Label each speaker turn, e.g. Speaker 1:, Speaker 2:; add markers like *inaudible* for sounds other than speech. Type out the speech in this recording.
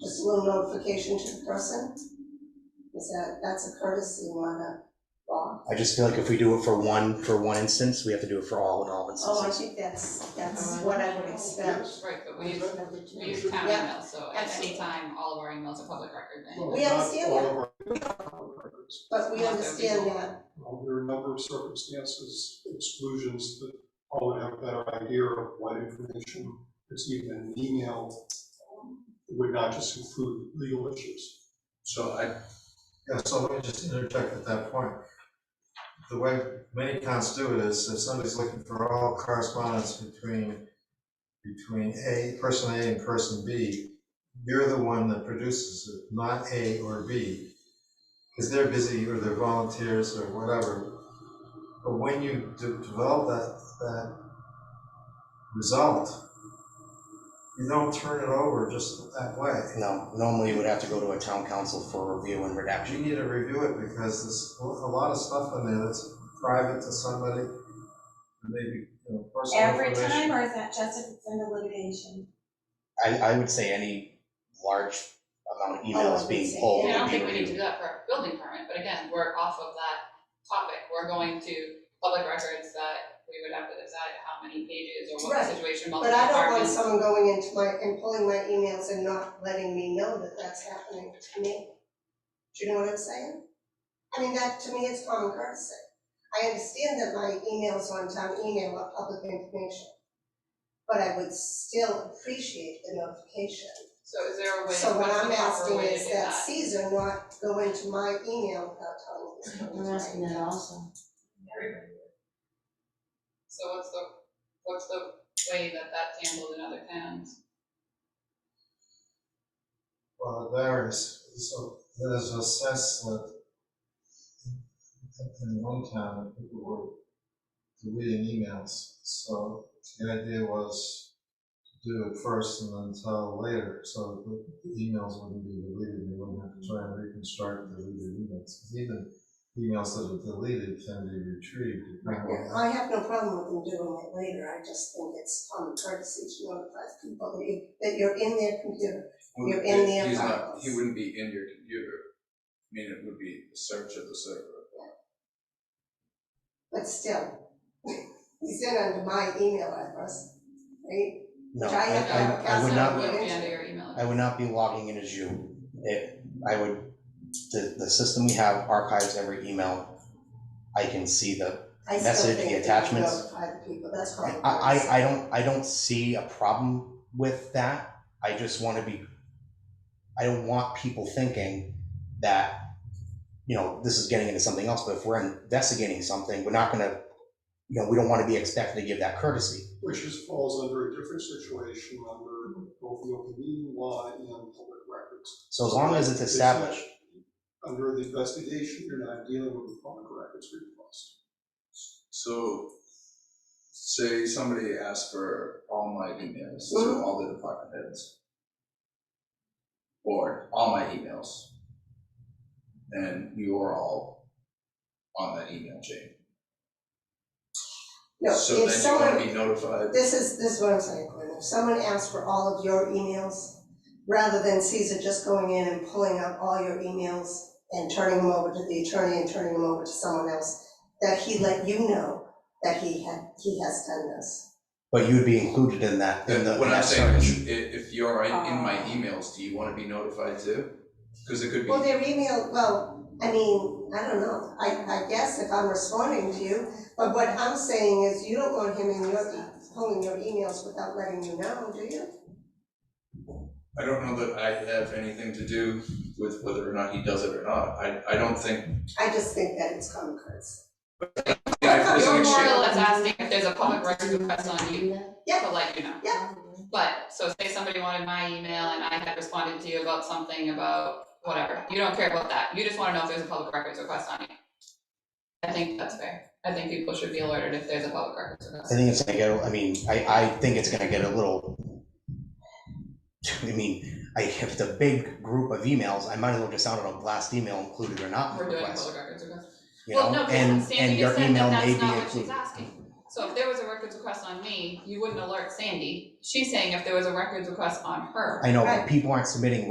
Speaker 1: just a little notification to the person? Is that, that's a courtesy, not a law.
Speaker 2: I just feel like if we do it for one, for one instance, we have to do it for all in all
Speaker 1: Oh, I
Speaker 2: instances.
Speaker 1: think that's, that's what I would expect.
Speaker 3: Right, but we use, we use town
Speaker 1: Yeah,
Speaker 3: email, so at any
Speaker 1: absolutely.
Speaker 3: time, all of our emails are public record then.
Speaker 1: We understand
Speaker 4: Well,
Speaker 1: that.
Speaker 4: not all of our records.
Speaker 1: But we understand that,
Speaker 4: Well, there are a number of circumstances, exclusions, that all would have a better idea of what information is even in an email. It would not just include legal issues.
Speaker 5: So I, yeah, so let me just interject at that point. The way many towns do it is if somebody's looking for all correspondence between, between A, person A and person B, you're the one that produces it, not A or B. Because they're busy or they're volunteers or whatever. But when you de- develop that, that result, you don't turn it over just that way.
Speaker 2: No, normally it would have to go to a town council for review and
Speaker 5: You
Speaker 2: redaction.
Speaker 5: need to review it because there's a lot of stuff in there that's private to somebody, maybe, you know, personal
Speaker 6: Every
Speaker 5: information.
Speaker 6: time, or is that just if it's in the litigation?
Speaker 2: I, I would say any large amount of
Speaker 1: Oh,
Speaker 2: emails
Speaker 1: I see.
Speaker 2: being
Speaker 3: I
Speaker 2: pulled
Speaker 3: mean, I
Speaker 2: would
Speaker 3: don't
Speaker 2: be
Speaker 3: think we need to do
Speaker 2: reviewed.
Speaker 3: that for our building permit, but again, we're off of that topic, we're going to public records that we would have to decide how many pages or what
Speaker 1: Right.
Speaker 3: situation,
Speaker 1: but
Speaker 3: multiple
Speaker 1: I don't want
Speaker 3: departments.
Speaker 1: someone going into my, and pulling my emails and not letting me know that that's happening to me. Do you know what I'm saying? I mean, that, to me, it's common courtesy. I understand that my emails on town email are public information, but I would still appreciate the notification.
Speaker 3: So is there a way, what's the
Speaker 1: So what I'm
Speaker 3: proper
Speaker 1: asking
Speaker 3: way to
Speaker 1: is
Speaker 3: do
Speaker 1: that
Speaker 3: that?
Speaker 1: Caesar not go into my email without telling me.
Speaker 7: I'm asking that also.
Speaker 3: So what's the, what's the way that that's handled in other towns?
Speaker 5: Well, it varies, so there's a sense that in- in one town, people were deleting emails, so the idea was to do it first and then tell later, so the emails wouldn't be deleted, they wouldn't have to try and reconstruct deleted emails. 'Cause Even emails that are deleted can be retrieved. depending on-
Speaker 1: I have no problem with them doing it later, I just think it's common courtesy to notify people that you, that you're in their computer. You're in the
Speaker 8: He's not-
Speaker 1: files.
Speaker 8: He wouldn't be in your computer, I mean, it would be a search of the server.
Speaker 1: But still, *laughs* he's in under my email address, right?
Speaker 2: No,
Speaker 1: Try
Speaker 2: I,
Speaker 1: it out.
Speaker 2: I, I would
Speaker 1: That's
Speaker 2: not,
Speaker 1: not
Speaker 3: Would
Speaker 1: be-
Speaker 3: be under your email.
Speaker 2: I would not be logging in as you. It, I would, the, the system we have archives every email. I can see the,
Speaker 1: I still
Speaker 2: Message, the
Speaker 1: think you
Speaker 2: attachments.
Speaker 1: notify the people, that's
Speaker 2: I,
Speaker 1: common courtesy.
Speaker 2: I, I don't, I don't see a problem with that. I just wanna be, I don't want people thinking that, you know, this is getting into something else, but if we're investigating something, we're not gonna, you know, we don't wanna be expected to give that courtesy.
Speaker 4: Which is, falls under a different situation under both the open meeting law and public records.
Speaker 2: So as long as it's
Speaker 4: It's not-
Speaker 2: established,
Speaker 4: Under the investigation, you're not dealing with a public records request.
Speaker 8: So, say somebody asked for all my emails
Speaker 1: Mm-hmm.
Speaker 8: to all the department heads. Or all my emails. And you are all on that email chain.
Speaker 1: No, if
Speaker 8: So
Speaker 1: someone.
Speaker 8: then you wanna be notified,
Speaker 1: This is, this is what I'm saying, Glenn, if someone asks for all of your emails, rather than Caesar just going in and pulling up all your emails and turning them over to the attorney and turning them over to someone else, that he let you know that he had, he has done this.
Speaker 2: but you'd be included in that, in the, in
Speaker 8: what I'm
Speaker 2: that
Speaker 8: saying
Speaker 2: search.
Speaker 8: is, if, if you're in, in my
Speaker 6: Ah.
Speaker 8: emails, do you wanna be notified too? Cause it could be,
Speaker 1: Well, their email, well, I mean, I don't know, I, I guess if I'm responding to you, but what I'm saying is you don't want him in your, e- pulling your emails without letting you know, do you?
Speaker 8: I don't know that I have anything to do with whether or not he does it or not, I, I
Speaker 1: *laughs*
Speaker 8: don't think
Speaker 1: I just think that it's common courtesy.
Speaker 8: Yeah, if there's an
Speaker 3: You're more
Speaker 8: exchange-
Speaker 3: or less asking if there's a public records request on you
Speaker 1: Yeah.
Speaker 3: to let you know.
Speaker 1: Yeah.
Speaker 3: But, so say somebody wanted my email and I had responded to you about something about whatever, you don't care about that, you just wanna know if there's a public records request on you. I think that's fair, I think people should be alerted if there's a public records
Speaker 2: I
Speaker 3: request.
Speaker 2: think it's gonna get, I mean, I, I think it's gonna get a little, I mean, I, if it's a big group of emails, I might as well just sound it on blast email included or not
Speaker 3: We're doing a
Speaker 2: request,
Speaker 3: public records request.
Speaker 2: you know, and, and your email may be included.
Speaker 3: Well, no, because Sandy just said that that's not what she's asking. So if there was a records request on me, you wouldn't alert Sandy, she's saying if there was a records request on her.
Speaker 2: I know,
Speaker 1: Right.
Speaker 2: but people aren't submitting